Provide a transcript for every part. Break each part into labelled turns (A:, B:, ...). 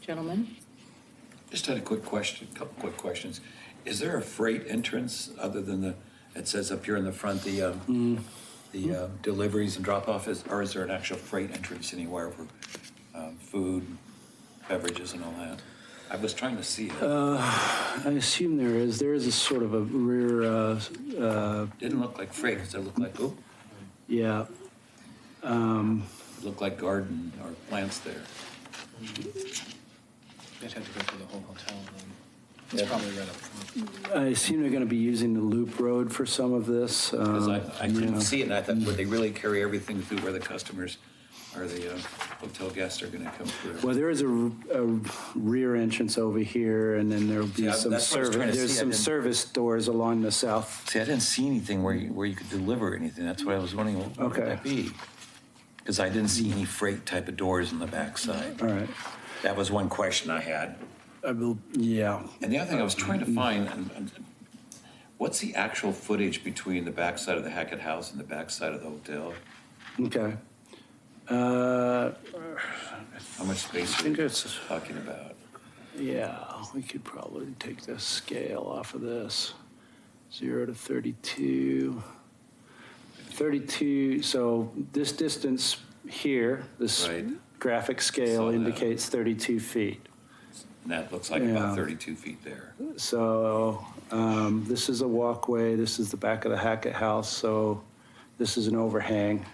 A: Gentlemen?
B: Just had a quick question, couple quick questions. Is there a freight entrance other than the, it says up here in the front, the, um, the uh, deliveries and drop off is, or is there an actual freight entrance anywhere for um, food, beverages and all that? I was trying to see it.
C: I assume there is. There is a sort of a rear, uh, uh,
B: Didn't look like freight, it looked like, oh,
C: yeah,
B: it looked like garden or plants there.
D: They'd have to go through the whole hotel then.
B: Yeah.
D: It's probably right up front.
C: I assume they're going to be using the loop road for some of this. um,
B: Because I, I couldn't
C: Uh, yeah.
B: see it, and I thought, would they really carry everything through where the customers or the uh, hotel guests are gonna come
C: Well,
B: through?
C: there is a, a rear entrance over here, and then there'll be
B: Yeah,
C: some
B: that's what I was
C: service.
B: trying to
C: There's
B: see. I
C: some
B: didn't-
C: service doors along the south.
B: See, I didn't see anything where you, where you could deliver anything, that's what I was wondering, what would
C: Okay.
B: that be? Because I didn't see any freight type of doors on the backside.
C: All right.
B: That was one question I had.
C: I will. Yeah.
B: And the other thing I was trying to find, and, and what's the actual footage between the backside of the Hackett House and the backside of the hotel?
C: Okay. Uh,
B: How much space
C: I
B: are
C: think
B: we
C: it's
B: talking about?
C: Yeah, we could probably take the scale off of this. Zero to 32. 32, so this distance here, this
B: Right.
C: graphic scale
B: Saw that.
C: indicates 32 feet.
B: And that looks like
C: Yeah.
B: about thirty-two feet there.
C: So um, this is a walkway, this is the back of the Hackett House, so this is an overhang.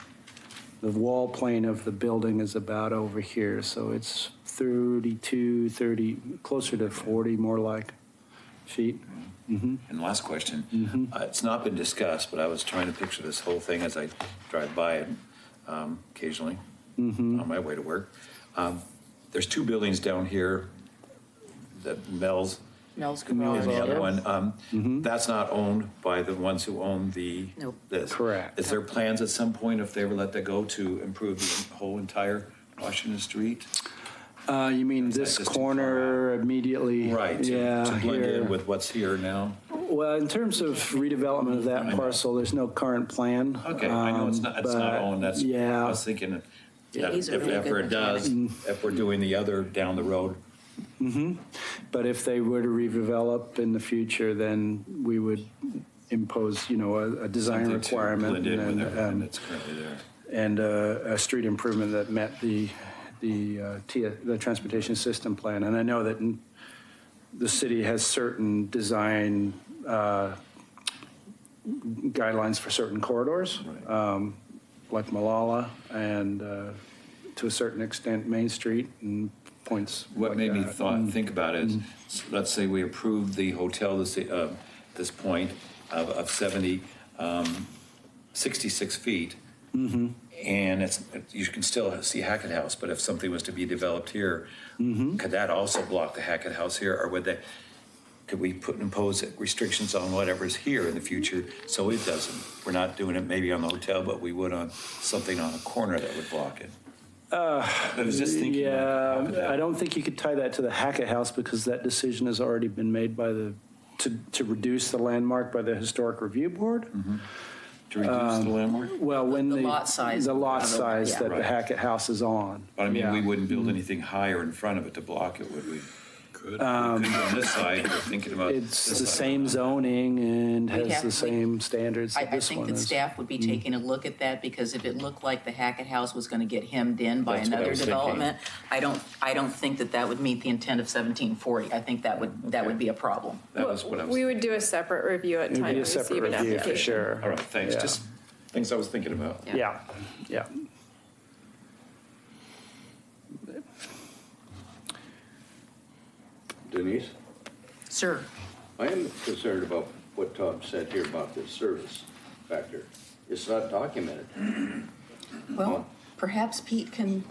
C: The wall plane of the building is about over here, so it's 32, 30, closer to 40 more like feet.
B: And last
C: Mm-hmm.
B: question, Uh, it's not been discussed, but I was trying to picture this whole thing as I drive by it um, occasionally
C: Mm-hmm.
B: on my way to work. Um, There's two buildings down here, that Mel's
A: Mel's Garage.
B: and the other
A: yeah.
B: one.
C: Mm-hmm.
B: um, That's not owned by the ones who own the,
A: Nope.
B: this.
C: Correct.
B: Is there plans at some point, if they ever let that go, to improve the whole entire Washington Street?
C: Uh, You mean
B: Is that
C: this
B: just too far
C: corner immediately?
B: Right, to-
C: Yeah.
B: to blend
C: here.
B: in with what's here now?
C: Well, in terms of redevelopment of
B: I
C: that
B: know.
C: parcel, there's no current plan.
B: Okay, I know it's
C: um,
B: not, it's not
C: but
B: owned, that's, I
C: Yeah,
B: was thinking,
A: Yeah,
B: that
A: he's
B: if
A: a really good
B: ever it does, if we're doing the other down the road,
C: but if they were to redevelop in the future, then we would impose, you know, a, a design
B: something to
C: requirement
B: blend in with
C: and,
B: everything
C: um,
B: that's currently there.
C: and uh, a, a street improvement that met the, the, uh, T- the transportation system plan. And I know that n- the city has certain design uh, guidelines for certain corridors.
B: Right.
C: um, like Malala and uh, to a certain extent Main Street and points.
B: What
C: like
B: made me
C: that. Mm.
B: thought, think about it, is, let's say we approve the hotel this, uh, this point of, of seventy, um, sixty-six feet.
C: Mm-hmm.
B: And it's, you can still see Hackett House, but if something was to be developed here,
C: Mm-hmm.
B: could that also block the Hackett House here, or would that, could we put, impose restrictions on whatever's here in the future, so it doesn't? We're not doing it maybe on the hotel, but we would on something on a corner that would block it. I was just thinking. like, how could
C: Uh, Yeah,
B: that-
C: I don't think you could tie that to the Hackett House because that decision has already been made by the, to, to reduce the landmark by the Historic Review Board.
B: Mm-hmm. To reduce
C: Um,
B: the landmark?
C: Well, when the.
A: The lot size.
C: The lot size
A: Yeah.
C: that the
B: Right.
C: Hackett House is on.
B: But I mean, we
C: Yeah. Mm.
B: wouldn't build anything higher in front of it to block it, would we? Could. We could on this side, we're thinking about.
C: Um, It's
B: this
C: the
B: side.
C: same zoning and
A: We'd
C: has
A: have-
C: the
A: we-
C: same standards
A: I,
C: that
A: I
C: this
A: think
C: one
A: that
C: is.
A: staff would be taking a look at that because if it looked like the Hackett House was going to get hemmed in by
B: That's what I
A: another
B: was thinking.
A: development, I don't, I don't think that that would meet the intent of 1740. I think that would, that would be a problem.
B: That was what I was,
E: We would do a separate review at
C: It would
E: time
C: be a
E: of
C: separate
E: receive an
C: review for
E: application.
C: sure.
B: all right, thanks,
C: Yeah.
B: just things I was thinking about.
A: Yeah.
C: Yeah, yeah.
F: Denise,
A: Sir,
F: I am concerned about what Tom said here about the service factor. It's not documented.
A: well, perhaps Pete can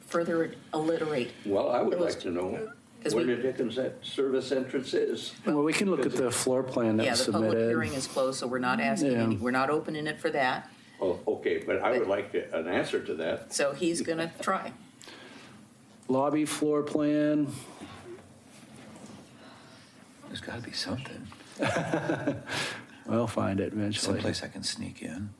A: further alliterate.
F: Well, I would like to know
A: 'Cause
F: where
A: we-
F: the Dickens that service entrance is.
C: Well, we can look at the floor plan that
A: Yeah,
C: was
A: the public hearing
C: submitted.
A: is closed, so we're not asking,
C: Yeah.
A: any- we're not opening it for that.
F: Oh, okay, but I would like to- an answer to that.
A: So he's going to try.
C: Lobby floor plan,
B: There's gotta be something,
C: I'll find it eventually.
B: I can sneak in.